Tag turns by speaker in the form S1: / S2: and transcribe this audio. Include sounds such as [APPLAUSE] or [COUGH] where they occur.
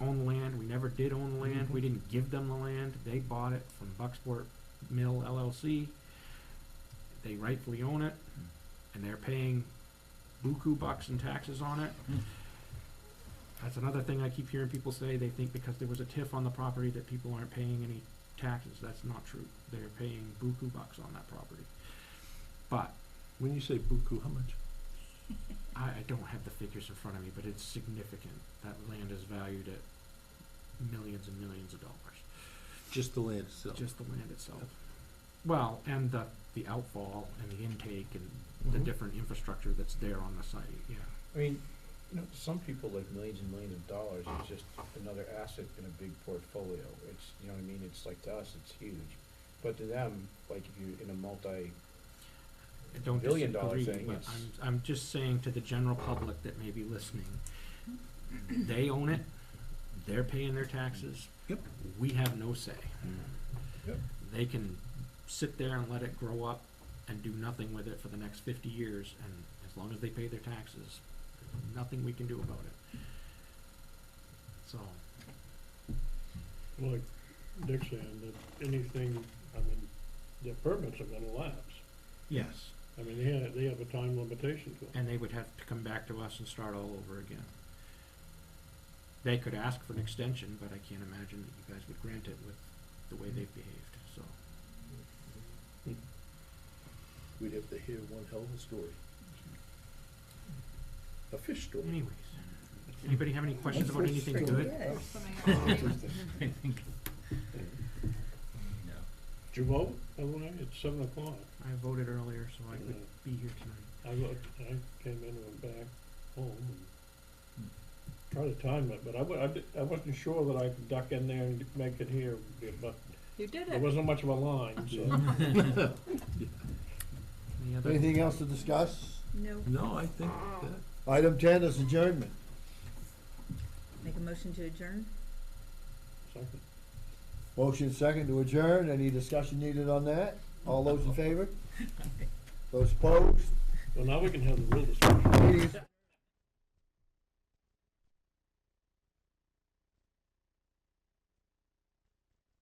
S1: own land. We never did own the land. We didn't give them the land. They bought it from Bucksport Mill LLC. They rightfully own it, and they're paying buku bucks in taxes on it.
S2: Mm.
S1: That's another thing I keep hearing people say. They think because there was a TIF on the property that people aren't paying any taxes. That's not true. They're paying buku bucks on that property. But
S3: When you say buku, how much?
S1: I, I don't have the figures in front of me, but it's significant. That land is valued at millions and millions of dollars,
S3: Just the land itself?
S1: just the land itself. Well, and the, the outfall and the intake and the
S2: Mm-hmm.
S3: Mhm.
S1: different infrastructure that's there on the site, yeah.
S2: I mean, you know, some people like millions and millions of dollars is just another asset in a big portfolio. It's, you know what I mean, it's like to us, it's huge. But to them, like if you're in a multi,
S1: I don't
S2: Billion dollar
S1: disagree,
S2: thing
S1: but
S2: is-
S1: I'm, I'm just saying to the general public that may be listening, they own it, they're paying their taxes.
S3: Yep.
S1: We have no say.
S2: Yep.
S1: They can sit there and let it grow up and do nothing with it for the next fifty years, and as long as they pay their taxes, nothing we can do about it. So,
S4: Like Dick saying, that anything, I mean, their permits are gonna lapse.
S1: yes,
S4: I mean, they have, they have a time limitation to them.
S1: and they would have to come back to us and start all over again. They could ask for an extension, but I can't imagine that you guys would grant it with the way they've behaved, so.
S3: We'd have to hear one hell of a story. A fish story.
S1: Anyways, anybody have any questions about anything good? [LAUGHS]
S2: [LAUGHS]
S5: I think. No.
S4: Did you vote, by the way? It's seven o'clock.
S1: I voted earlier, so I could
S4: Uh,
S1: be here tonight.
S4: I vote, I came in and went back home and tried to time it, but I wa- I di- I wasn't sure that I could duck in there and make it here, but
S5: You did
S4: there wasn't much of a line, so.
S1: Any [LAUGHS] other-
S6: Anything else to discuss?
S5: No.
S3: No, I think that,
S6: Item ten is adjournment.
S5: Make a motion to adjourn?
S4: Second.
S6: Motion second to adjourn. Any discussion needed on that? All those in favor? Those opposed?
S4: Well, now we can have the real discussion.
S6: Meeting is-